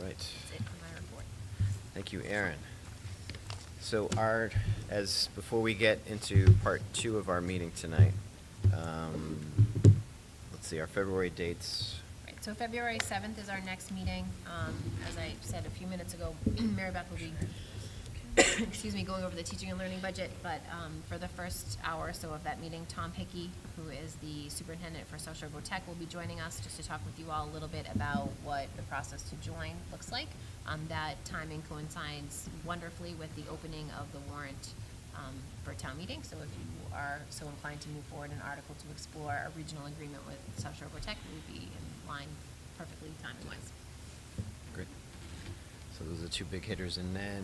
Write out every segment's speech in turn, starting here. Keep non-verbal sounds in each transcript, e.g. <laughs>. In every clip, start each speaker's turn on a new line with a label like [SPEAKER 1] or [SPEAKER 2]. [SPEAKER 1] That's it for my report.
[SPEAKER 2] Thank you, Aaron. So our, as, before we get into part two of our meeting tonight, um, let's see, our February dates.
[SPEAKER 1] Right, so February 7th is our next meeting. Um, As I said a few minutes ago, <clears throat> Mary Beth will be, <coughs> excuse me, going over the teaching and learning budget, but um, for the first hour or so of that meeting, Tom Hickey, who is the superintendent for South Shore Grove Tech, will be joining us just to talk with you all a little bit about what the process to join looks like. Um, That timing coincides wonderfully with the opening of the warrant um, for town meeting. So if you are so inclined to move forward an article to explore a regional agreement with South Shore Vortec, we would be in line perfectly timing wise.
[SPEAKER 2] Great. So those are two big hitters, and then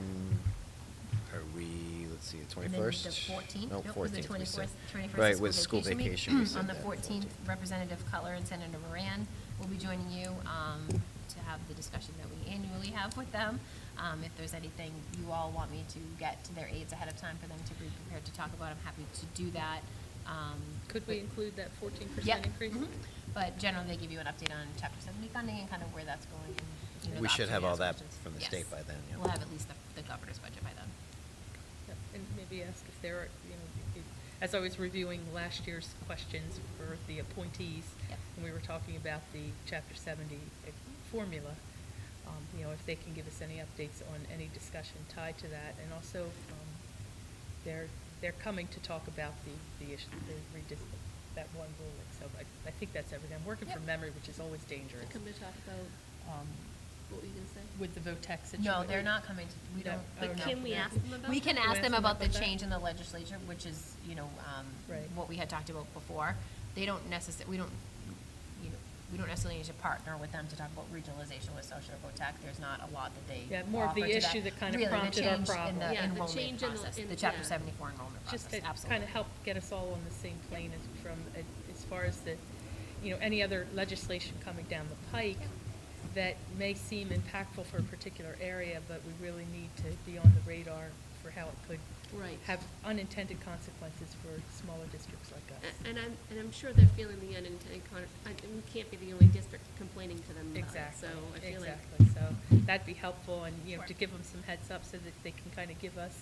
[SPEAKER 2] are we, let's see, the
[SPEAKER 1] And then
[SPEAKER 2] twenty-first?
[SPEAKER 1] The fourteenth.
[SPEAKER 2] No, fourteenth, we said.
[SPEAKER 1] Right,
[SPEAKER 2] Right, with school vacation, we said
[SPEAKER 1] <clears throat> On the
[SPEAKER 2] that,
[SPEAKER 1] fourteenth, Representative Cutler and Senator Moran will be joining you um, to have the discussion that we annually have with them. Um, If there's anything you all want me to get to their aides ahead of time for them to be prepared to talk about, I'm happy to do that. Um,
[SPEAKER 3] Could we include that fourteen
[SPEAKER 1] Yep.
[SPEAKER 3] percent increase?
[SPEAKER 1] Mhm. But generally, they give you an update on chapter seventy funding and kind of where that's going and, you know.
[SPEAKER 2] We
[SPEAKER 1] the
[SPEAKER 2] should have
[SPEAKER 1] option to
[SPEAKER 2] all
[SPEAKER 1] ask
[SPEAKER 2] that
[SPEAKER 1] questions.
[SPEAKER 2] from the
[SPEAKER 1] Yes.
[SPEAKER 2] state by then, yeah.
[SPEAKER 1] We'll have at least the, the governor's budget by then.
[SPEAKER 3] Yep, And maybe ask if there are, you know, if- as I was reviewing last year's questions for the appointees,
[SPEAKER 1] Yep.
[SPEAKER 3] and we were talking about the chapter seventy uh, formula, um, you know, if they can give us any updates on any discussion tied to that, and also, um, they're, they're coming to talk about the, the issue, the redis, that one ruling, so I, I think that's everything. I'm working from
[SPEAKER 1] Yep.
[SPEAKER 3] memory, which is always dangerous.
[SPEAKER 4] Come to talk about
[SPEAKER 3] Um,
[SPEAKER 4] what we can say.
[SPEAKER 3] With the VOTEC situation.
[SPEAKER 1] No, they're not coming to, we
[SPEAKER 3] No.
[SPEAKER 1] don't.
[SPEAKER 3] But
[SPEAKER 1] oh, no.
[SPEAKER 4] can we ask them about
[SPEAKER 1] We
[SPEAKER 4] that?
[SPEAKER 1] can
[SPEAKER 3] Can we
[SPEAKER 1] ask them about the
[SPEAKER 3] that?
[SPEAKER 1] change in the legislature, which is, you know, um,
[SPEAKER 3] Right.
[SPEAKER 1] what we had talked about before. They don't necessarily, we don't, you know, we don't necessarily need to partner with them to talk about regionalization with social tech. There's not a lot that they
[SPEAKER 3] Yeah, more of the
[SPEAKER 1] offer to
[SPEAKER 3] issue that kind of
[SPEAKER 1] Really, the
[SPEAKER 3] prompted our
[SPEAKER 1] change in the
[SPEAKER 3] problem.
[SPEAKER 4] Yeah, the
[SPEAKER 1] enrollment
[SPEAKER 4] change in the-
[SPEAKER 1] process,
[SPEAKER 4] in-
[SPEAKER 1] The chapter
[SPEAKER 4] yeah.
[SPEAKER 1] seventy-four enrollment process,
[SPEAKER 3] Just to
[SPEAKER 1] absolutely.
[SPEAKER 3] kind of help get us all on the same plane as from, as far as the, you know, any other legislation coming down the pike that may seem impactful for a particular area, but we really need to be on the radar for how it could
[SPEAKER 4] Right.
[SPEAKER 3] have unintended consequences for smaller districts like us.
[SPEAKER 4] A- And I'm, and I'm sure they're feeling the unintended con, I- we can't be the only district complaining to them about it, so
[SPEAKER 3] Exactly,
[SPEAKER 4] I feel like.
[SPEAKER 3] exactly. So that'd be helpful and, you know, to
[SPEAKER 1] Sure.
[SPEAKER 3] give them some heads up so that they can kind of give us,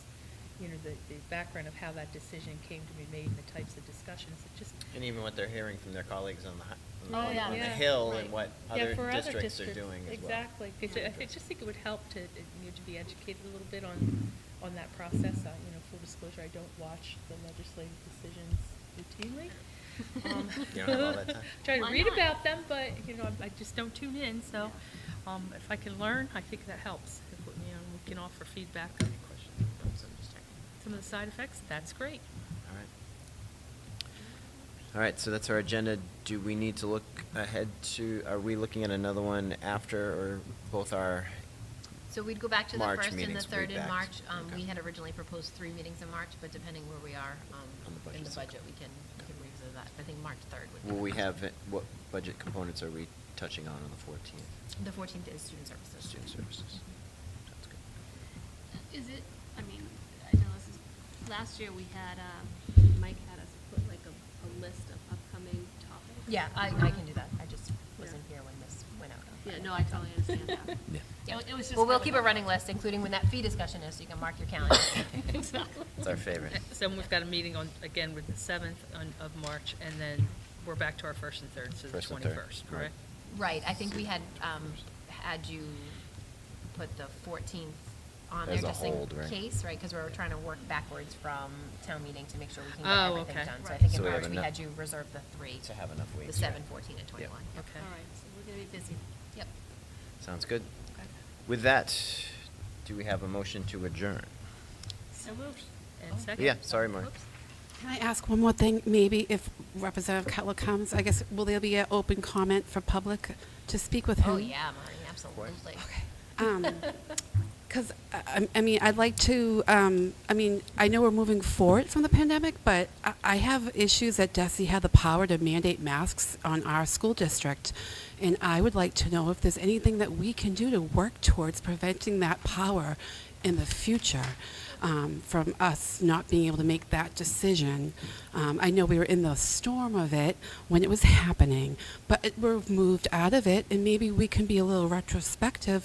[SPEAKER 3] you know, the, the background of how that decision came to be made and the types of discussions. It just,
[SPEAKER 2] And even what they're hearing from their colleagues on the, hi- on the-
[SPEAKER 3] Oh,
[SPEAKER 2] on the
[SPEAKER 3] yeah. Yeah.
[SPEAKER 2] Hill and
[SPEAKER 4] Right.
[SPEAKER 2] what
[SPEAKER 3] Yeah,
[SPEAKER 2] other
[SPEAKER 3] for
[SPEAKER 2] districts are doing as well.
[SPEAKER 3] Exactly, 'Cause I- I just think it would help to, uh, you know, to be educated a little bit on, on that process. Uh, You know, full disclosure, I don't watch the legislative decisions
[SPEAKER 2] <laughs>
[SPEAKER 3] routinely. Um,
[SPEAKER 2] You don't have all that time?
[SPEAKER 3] <laughs> Try to
[SPEAKER 4] Why
[SPEAKER 3] read
[SPEAKER 4] not?
[SPEAKER 3] about them, but, you know, I I just don't tune in, so um, if I can learn, I think that helps. If, You know, we can offer feedback on some of the side effects, that's great.
[SPEAKER 2] All right. All right, so that's our agenda. Do we need to look ahead to, are we looking at another one after or both our,
[SPEAKER 1] So we'd go back to the
[SPEAKER 2] March
[SPEAKER 1] first and the
[SPEAKER 2] meetings, we'll be
[SPEAKER 1] third in
[SPEAKER 2] back.
[SPEAKER 1] March. Um,
[SPEAKER 2] Okay.
[SPEAKER 1] We had originally proposed three meetings in March, but depending where we are um,
[SPEAKER 2] On the budget
[SPEAKER 1] in the
[SPEAKER 2] cycle.
[SPEAKER 1] budget, we can we can revisit that. I think March 3rd would be.
[SPEAKER 2] will
[SPEAKER 1] the
[SPEAKER 2] we
[SPEAKER 1] first.
[SPEAKER 2] have, what budget components are we touching on on the fourteenth?
[SPEAKER 1] The 14th is student services.
[SPEAKER 2] Student services. Sounds good.
[SPEAKER 4] Is it, I mean, I know this is, last year we had, um, Mike had us put like a, a list of upcoming topics.
[SPEAKER 1] Yeah, I, I can do that. I just wasn't
[SPEAKER 4] wasn't
[SPEAKER 1] here when this went out.
[SPEAKER 4] Yeah, no, I totally understand that.
[SPEAKER 2] <laughs> Yeah.
[SPEAKER 1] Yeah.
[SPEAKER 4] It was just
[SPEAKER 1] Well, we'll
[SPEAKER 4] kind
[SPEAKER 1] keep
[SPEAKER 4] of a-
[SPEAKER 1] a running list, including when that fee discussion is, so you can mark your calendar.
[SPEAKER 4] <laughs> Exactly.
[SPEAKER 2] It's our favorite.
[SPEAKER 3] So we've got a meeting on, again, with the 7th on- of March, and then we're back to our first and third, so the
[SPEAKER 2] First and third,
[SPEAKER 3] 21st,
[SPEAKER 2] right.
[SPEAKER 3] correct?
[SPEAKER 1] Right, I think we had, um, had you put the 14th on there
[SPEAKER 2] As a
[SPEAKER 1] just in
[SPEAKER 2] hold, right?
[SPEAKER 1] case, right? Because we were trying to work backwards from town meeting to make sure we can
[SPEAKER 3] Oh,
[SPEAKER 1] get everything
[SPEAKER 3] okay.
[SPEAKER 1] done. So I
[SPEAKER 4] Right.
[SPEAKER 1] think
[SPEAKER 2] So
[SPEAKER 1] in
[SPEAKER 2] we have
[SPEAKER 1] March, we
[SPEAKER 2] enough-
[SPEAKER 1] had you reserve the three.
[SPEAKER 2] To have enough
[SPEAKER 1] The
[SPEAKER 2] weeks, right?
[SPEAKER 1] 7, 14, and 21. Yep.
[SPEAKER 3] Okay.
[SPEAKER 4] All right, so we're gonna be busy.
[SPEAKER 1] Yep.
[SPEAKER 2] Sounds good. With that, do we have a motion to adjourn?
[SPEAKER 4] So moved.
[SPEAKER 3] And second?
[SPEAKER 2] Yeah, sorry, Mark.
[SPEAKER 3] Oops.
[SPEAKER 5] Can I ask one more thing? Maybe if Representative Cutler comes, I guess, will there be an open comment for public to speak with him? Um,
[SPEAKER 1] Oh, yeah, Marty, absolutely. <laughs>
[SPEAKER 5] Because, I, I mean, I'd like to, um, I mean, I know we're moving forward from the pandemic, but I, I have issues that DESI had the power to mandate masks on our school district. And I would like to know if there's anything that we can do to work towards preventing that power in the future um, from us not being able to make that decision. Um, I know we were in the storm of it when it was happening, but it, we've moved out of it, and maybe we can be a little retrospective